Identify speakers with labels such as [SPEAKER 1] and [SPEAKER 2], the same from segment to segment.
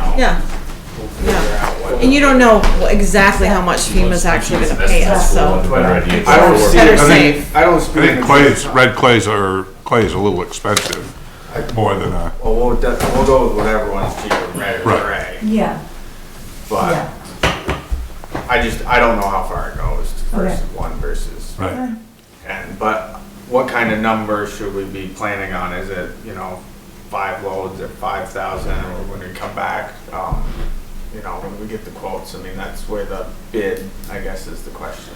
[SPEAKER 1] Yeah.
[SPEAKER 2] we'll figure out what.
[SPEAKER 1] And you don't know exactly how much FEMA's actually gonna pay us, so.
[SPEAKER 2] But
[SPEAKER 3] Better idea.
[SPEAKER 2] I don't see, I
[SPEAKER 1] Better
[SPEAKER 2] think,
[SPEAKER 1] safe.
[SPEAKER 2] I don't
[SPEAKER 4] I
[SPEAKER 2] speak.
[SPEAKER 4] think clays, red clays are, clay's a little expensive, more than a,
[SPEAKER 2] Well, Oh, we'll, de- we'll go with whatever one's cheaper, red or
[SPEAKER 4] Right.
[SPEAKER 2] gray,
[SPEAKER 3] Yeah,
[SPEAKER 2] but
[SPEAKER 3] yeah,
[SPEAKER 2] I just, I don't know how far it goes versus
[SPEAKER 3] Okay.
[SPEAKER 2] one versus.
[SPEAKER 4] right,
[SPEAKER 2] And, but what kind of number should we be planning on? Is it, you know, five loads at five thousand or when we come back? Um, you know, when we get the quotes, I mean, that's where the bid, I guess, is the question.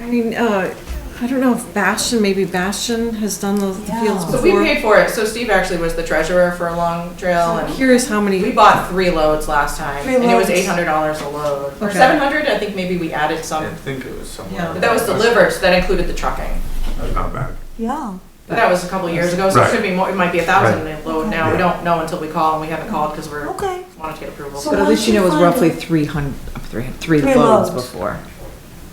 [SPEAKER 1] I mean, uh, I don't know if Bastion, maybe Bastion has done those the fields
[SPEAKER 3] Yeah.
[SPEAKER 5] So we
[SPEAKER 1] before.
[SPEAKER 5] paid for it, so Steve actually was the treasurer for Long Trail,
[SPEAKER 1] I'm
[SPEAKER 5] and
[SPEAKER 1] curious how
[SPEAKER 5] we
[SPEAKER 1] many,
[SPEAKER 5] bought three loads last time,
[SPEAKER 3] Three
[SPEAKER 5] and it was
[SPEAKER 3] loads.
[SPEAKER 5] eight hundred dollars a load, or
[SPEAKER 1] Okay.
[SPEAKER 5] seven hundred, I think maybe we added
[SPEAKER 2] I
[SPEAKER 5] some.
[SPEAKER 2] didn't think it was somewhere.
[SPEAKER 1] Yeah.
[SPEAKER 5] But that was delivered, so that included the trucking,
[SPEAKER 4] that's not bad.
[SPEAKER 3] yeah.
[SPEAKER 5] but that was a couple years ago, so it
[SPEAKER 4] Right.
[SPEAKER 5] should be more, it might be a thousand a load now, we
[SPEAKER 4] Yeah.
[SPEAKER 5] don't know until we call, and we haven't called, because we're,
[SPEAKER 3] Okay.
[SPEAKER 5] wanted to get
[SPEAKER 3] So-
[SPEAKER 5] approval.
[SPEAKER 6] But at least you know it was
[SPEAKER 3] Why don't you
[SPEAKER 6] roughly
[SPEAKER 3] find a-
[SPEAKER 6] 300, uh, three- three
[SPEAKER 3] Three
[SPEAKER 6] loads
[SPEAKER 3] loads.
[SPEAKER 6] before.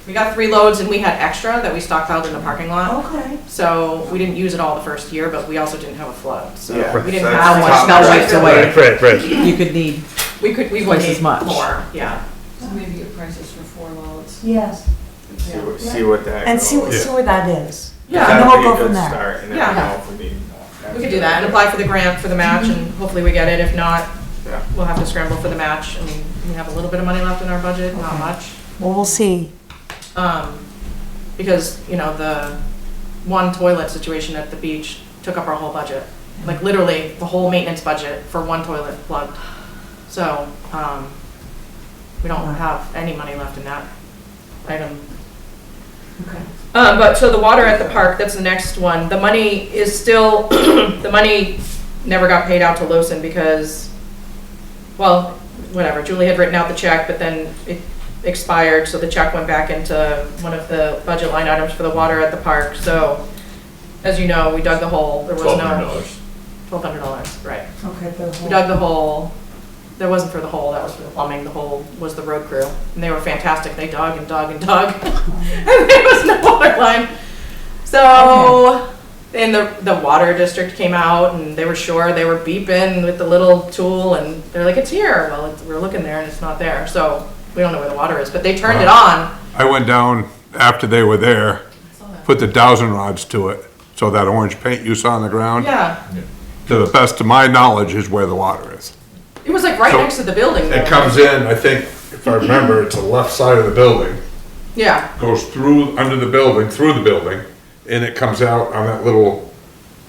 [SPEAKER 5] We got three loads, and we had extra that we stockpiled in the parking lot,
[SPEAKER 3] Okay.
[SPEAKER 5] so we didn't use it all the first year, but we also didn't have a flood, so
[SPEAKER 2] Yeah.
[SPEAKER 5] we didn't
[SPEAKER 2] So
[SPEAKER 5] have.
[SPEAKER 2] that's
[SPEAKER 5] much
[SPEAKER 2] top-
[SPEAKER 6] Not wiped away.
[SPEAKER 7] Right, right, right.
[SPEAKER 6] You could need,
[SPEAKER 5] We could, we would
[SPEAKER 6] Twice as
[SPEAKER 5] need
[SPEAKER 6] much.
[SPEAKER 5] more, yeah.
[SPEAKER 8] So maybe get prices for four loads.
[SPEAKER 3] Yes,
[SPEAKER 2] And See what, see what that.
[SPEAKER 3] and see,
[SPEAKER 2] goes.
[SPEAKER 3] what- see where that is.
[SPEAKER 5] Yeah.
[SPEAKER 3] And
[SPEAKER 2] That'd
[SPEAKER 3] then we'll
[SPEAKER 2] be a
[SPEAKER 3] go
[SPEAKER 2] good
[SPEAKER 3] from there.
[SPEAKER 2] start, and then
[SPEAKER 5] Yeah.
[SPEAKER 2] I don't know if we need.
[SPEAKER 5] We could do that and apply for the grant for the match and hopefully we get it. If not,
[SPEAKER 2] Yeah.
[SPEAKER 5] we'll have to scramble for the match. I mean, we have a little bit of money left in our budget, not much.
[SPEAKER 3] Well, we'll see.
[SPEAKER 5] Um, because, you know, the one toilet situation at the beach took up our whole budget. Like literally the whole maintenance budget for one toilet plugged. So, um, we don't have any money left in that item.
[SPEAKER 8] Okay.
[SPEAKER 5] Um, but so the water at the park, that's the next one. The money is still, the money never got paid out to Lawson because, well, whatever, Julie had written out the check, but then it expired, so the check went back into one of the budget line items for the water at the park. So, as you know, we dug the hole, there was no.
[SPEAKER 7] $1,200.
[SPEAKER 5] Twelve hundred dollars, right.
[SPEAKER 3] Okay, the
[SPEAKER 5] We
[SPEAKER 3] whole-
[SPEAKER 5] dug the hole, that wasn't for the hole, that was for the plumbing, the hole was the road crew. And they were fantastic, they dug and dug and dug. And there was no water line. So, and the, the water district came out and they were sure, they were beeping with the little tool and they're like, it's here. Well, it's- we're looking there and it's not there, so we don't know where the water is, but they turned it on.
[SPEAKER 4] I went down after they were there, put the dowsing rods to it, so that orange paint you saw on the ground,
[SPEAKER 5] Yeah,
[SPEAKER 4] to the best of my knowledge, is where the water is.
[SPEAKER 5] it was like right
[SPEAKER 4] So-
[SPEAKER 5] next to the building.
[SPEAKER 4] It
[SPEAKER 5] though.
[SPEAKER 4] comes in, I think, if I remember, it's the left side of the building,
[SPEAKER 5] Yeah,
[SPEAKER 4] goes through, under the building, through the building, and it comes out on that little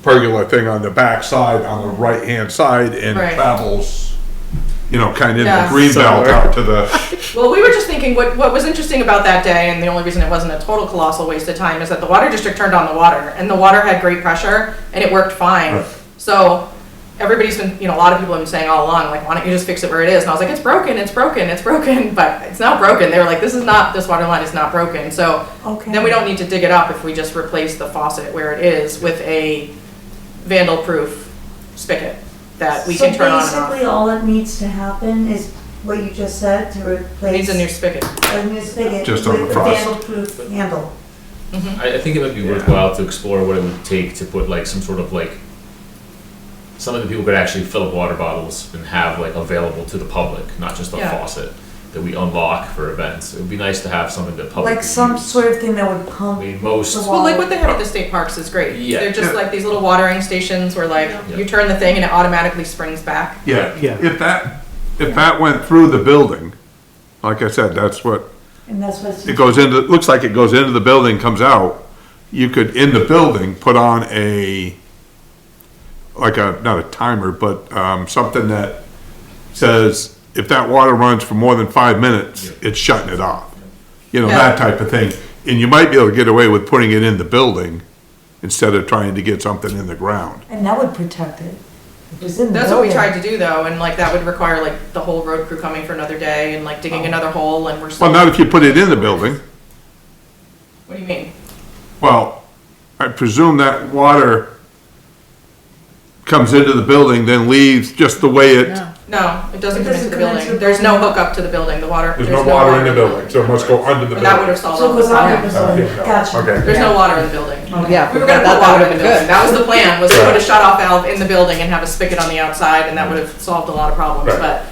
[SPEAKER 4] pergola thing on the back side, on the right-hand side, and
[SPEAKER 5] Right.
[SPEAKER 4] travels, you know, kind of in the
[SPEAKER 5] Yeah.
[SPEAKER 4] green belt out to the,
[SPEAKER 5] Well, we were just thinking what, what was interesting about that day, and the only reason it wasn't a total colossal waste of time is that the water district turned on the water, and the water had great pressure, and it worked fine.
[SPEAKER 4] Right.
[SPEAKER 5] So everybody's been, you know, a lot of people have been saying all along, like, why don't you just fix it where it is? And I was like, it's broken, it's broken, it's broken, but it's not broken. They were like, this is not, this water line is not broken. So
[SPEAKER 3] Okay.
[SPEAKER 5] then we don't need to dig it up if we just replace the faucet where it is with a vandal-proof spigot that we can turn on
[SPEAKER 3] So
[SPEAKER 5] and
[SPEAKER 3] basically, all that needs to happen is what you just said, to
[SPEAKER 5] off.
[SPEAKER 3] replace.
[SPEAKER 5] Needs a new spigot.
[SPEAKER 3] a new spigot
[SPEAKER 4] Just on the
[SPEAKER 3] with a
[SPEAKER 4] frost.
[SPEAKER 3] vandal-proof handle.
[SPEAKER 7] I, I think it might be
[SPEAKER 2] Yeah.
[SPEAKER 7] worthwhile to explore what it would take to put like some sort of like something that people could actually fill up water bottles and have like available to the public, not just a
[SPEAKER 5] Yeah.
[SPEAKER 7] faucet that we unlock for events. It would be nice to have something that public
[SPEAKER 3] Like
[SPEAKER 7] could
[SPEAKER 3] some
[SPEAKER 7] use.
[SPEAKER 3] sort of thing that would
[SPEAKER 7] I
[SPEAKER 3] pump.
[SPEAKER 7] mean,
[SPEAKER 3] the
[SPEAKER 7] most
[SPEAKER 3] wa-
[SPEAKER 5] Well, like what they have at the state parks is great.
[SPEAKER 7] Yeah.
[SPEAKER 5] They're just
[SPEAKER 4] Yeah.
[SPEAKER 5] like these little watering stations where like
[SPEAKER 7] Yeah.
[SPEAKER 5] you turn the thing and it automatically springs back.
[SPEAKER 4] yeah.
[SPEAKER 7] Yeah.
[SPEAKER 4] If that, if that went through the building, like I said, that's what,
[SPEAKER 3] And that's what's.
[SPEAKER 4] it goes into, it looks like it goes into the building, comes out. You could, in the building, put on a, like a, not a timer, but, um, something that says, if that water runs for more than five minutes, it's shutting it off. You know, that type of thing. And you might be able to get away with putting it in the building instead of trying to get something in the ground.
[SPEAKER 3] And that would protect it. It was in the
[SPEAKER 5] That's what we
[SPEAKER 3] building.
[SPEAKER 5] tried to do though, and like that would require like the whole road crew coming for another day and like digging another hole and we're still.
[SPEAKER 4] Well, not if you put it in the building.
[SPEAKER 5] What do you mean?
[SPEAKER 4] Well, I presume that water comes into the building, then leaves just the way it,
[SPEAKER 5] No, it doesn't
[SPEAKER 3] It
[SPEAKER 5] come into the
[SPEAKER 3] doesn't come into
[SPEAKER 5] building.
[SPEAKER 3] the
[SPEAKER 5] There's no
[SPEAKER 3] building.
[SPEAKER 5] hookup to the building, the water.
[SPEAKER 4] there's no water in the building, so it must go under the
[SPEAKER 5] And that would
[SPEAKER 4] building.
[SPEAKER 5] have solved all
[SPEAKER 3] So
[SPEAKER 5] the
[SPEAKER 3] it was on, it
[SPEAKER 5] problem.
[SPEAKER 3] was on,
[SPEAKER 4] Okay.
[SPEAKER 3] gotcha.
[SPEAKER 4] Oh, Okay,
[SPEAKER 5] There's no water in the building.
[SPEAKER 6] yeah.
[SPEAKER 5] We were gonna
[SPEAKER 6] that-
[SPEAKER 5] put
[SPEAKER 6] that
[SPEAKER 5] water in
[SPEAKER 6] would've
[SPEAKER 5] the
[SPEAKER 6] been
[SPEAKER 5] building. That was the plan, was to
[SPEAKER 4] Right.
[SPEAKER 5] put a shut off valve in the building and have a spigot on the outside and that would have solved a lot of problems,
[SPEAKER 4] Right.
[SPEAKER 5] but